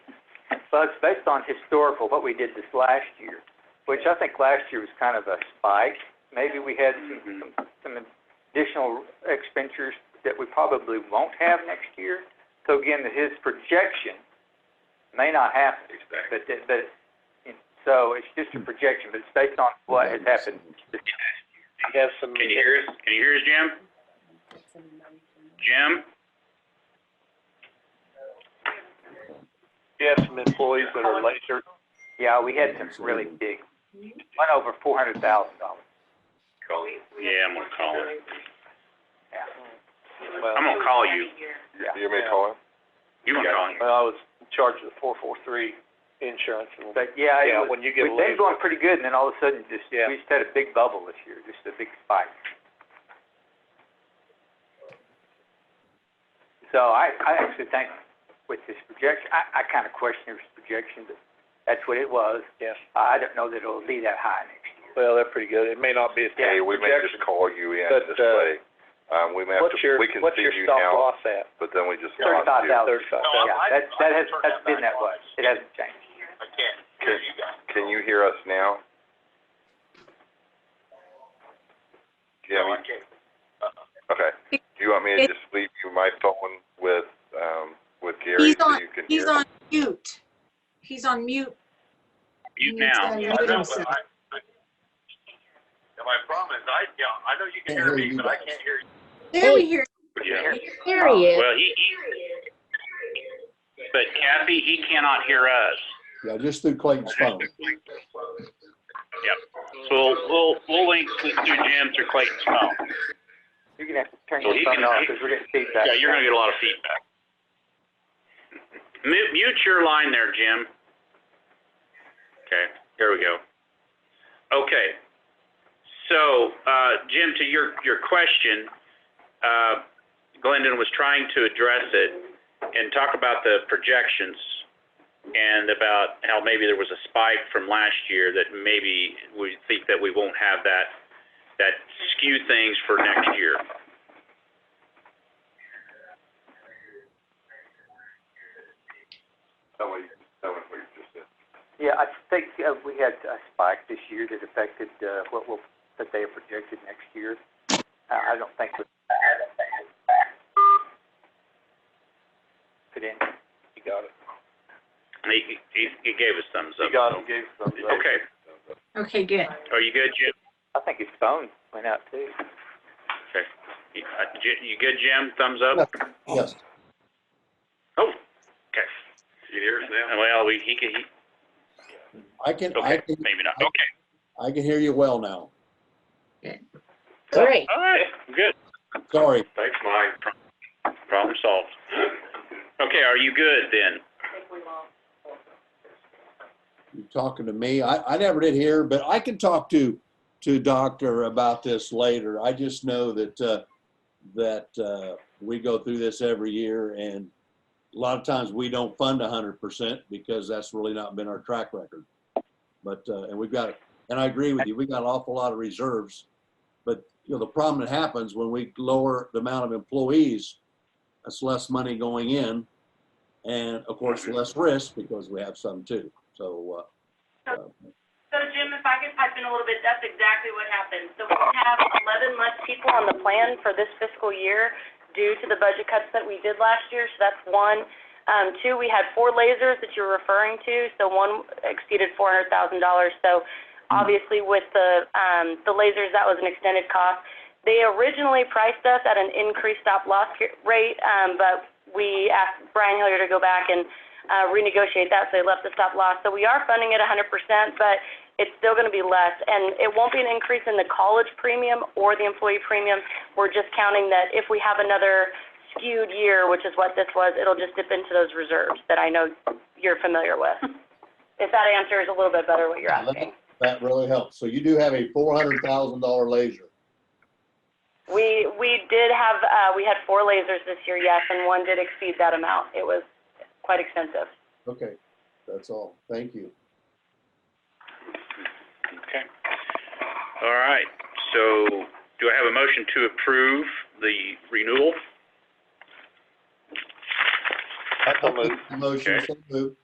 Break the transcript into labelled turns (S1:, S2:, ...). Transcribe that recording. S1: Well, it's based on historical, what we did this last year, which I think last year was kind of a spike. Maybe we had some, some, some additional expenditures that we probably won't have next year. So again, that his projection may not happen,
S2: Exactly.
S1: but, that- but, so it's just a projection, but it's based on what has happened this
S3: We have some,
S2: Can you hear us? Can you hear us, Jim? Jim?
S3: we have some employees that are laser,
S1: Yeah, we had some really big, one over four hundred thousand dollars.
S2: Call him. Yeah, I'm gonna call him.
S3: well,
S2: I'm gonna call you.
S1: Yeah.
S4: You may call him.
S2: You wanna call him?
S3: well, I was in charge of the four four three insurance and,
S1: But yeah, it
S3: yeah,
S1: was,
S3: when you get a
S1: we've been
S3: laser,
S1: going pretty good and then all of a sudden just,
S3: Yeah.
S1: we just had a big bubble this year, just a big spike. So I, I actually think with his projection, I, I kind of question his projection, but that's what it was.
S3: yes.
S1: I don't know that it'll be that high next year.
S3: Well, they're pretty good. It may not be as good
S4: Hey,
S3: as
S4: we may
S3: projection.
S4: just call you in
S3: But,
S4: this
S3: uh,
S4: way. Um, we may have to,
S3: What's your,
S4: we can
S3: what's
S4: see
S3: your
S4: you
S3: stop
S4: now,
S3: loss at?
S4: but then we just lost
S1: Thirty-five
S4: you.
S1: thousand.
S3: Thirty-five
S1: Yeah,
S3: thousand.
S1: that, that has, that's been that way. It hasn't changed.
S4: Can you hear us now? Do you have me- Okay. Do you want me to
S5: It-
S4: just leave you my phone with, um, with Gary
S5: He's
S4: so
S5: on-
S4: you can hear?
S5: He's on mute. He's on mute.
S2: You
S5: He needs to
S2: now.
S5: unmute himself.
S2: My problem is, I, yeah, I know you can hear me, but I can't hear you.
S5: There we hear.
S2: Yeah.
S6: There he is.
S2: Well, he, he, but Kathy, he cannot hear us.
S7: Yeah, just through Clayton's phone.
S2: So we'll, we'll, we'll link with you, Jim, through Clayton's phone.
S1: You're gonna have to turn
S2: So
S1: your
S2: he
S1: phone
S2: can-
S1: off because we're getting feedback.
S2: Yeah, you're gonna get a lot of feedback. Mute, mute your line there, Jim. Okay, here we go. Okay. So, uh, Jim, to your, your question, uh, Glendon was trying to address it and talk about the projections and about how maybe there was a spike from last year that maybe we think that we won't have that, that skew things for next year.
S4: Tell me, tell me what you just said.
S1: Yeah, I think, uh, we had a spike this year that affected, uh, what will, that they have projected next year. I, I don't think we. Put in.
S3: You got it.
S2: He, he, he gave us thumbs
S3: You
S2: up.
S3: got it. Gave some.
S2: Okay,
S5: Okay, good.
S2: are you good, Jim?
S1: I think his phone went out too.
S2: You uh, Ji- you good, Jim? Thumbs up? Oh,
S7: Yes,
S2: Okay. You hear us now? Well, we, he, can- he,
S7: I can, I
S2: okay,
S7: can,
S2: maybe not. Okay,
S7: I can hear you well now.
S6: Great.
S2: all right, good.
S7: Sorry.
S2: Thanks, Mike. Problem solved. Okay, are you good then?
S7: You're talking to me. I, I never did hear, but I can talk to, to doctor about this later. I just know that, uh, that, uh, we go through this every year and a lot of times we don't fund a hundred percent because that's really not been our track record. But, uh, and we've got, and I agree with you, we got an awful lot of reserves. But, you know, the problem that happens when we lower the amount of employees, that's less money going in. And of course, less risk because we have some too. So, uh,
S8: So Jim, if I could pipe in a little bit, that's exactly what happened. So we have eleven less people on the plan for this fiscal year due to the budget cuts that we did last year, so that's one. Um, two, we had four lasers that you're referring to, so one exceeded four hundred thousand dollars. So obviously with the, um, the lasers, that was an extended cost. They originally priced us at an increased stop loss ca- rate, um, but we asked Brian Hillier to go back and, uh, renegotiate that, so they left the stop loss. So we are funding it hundred percent, but it's still going to be less, and it won't be an increase in the college premium or the employee premium. We're just counting that if we have another skewed year, which is what this was, it'll just dip into those reserves that I know you're familiar with. If that answers a little bit better what you're
S7: Yeah, let-
S8: asking.
S7: That really helps. So you do have a four hundred thousand dollar laser.
S8: We, we did have, uh, we had four lasers this year, yes, and one did exceed that amount. It was quite expensive.
S7: Okay, that's all. Thank you.
S2: Okay. All right, so do I have a motion to approve the renewal?
S3: I so moved.
S7: Motion,
S2: Okay.
S7: so moved.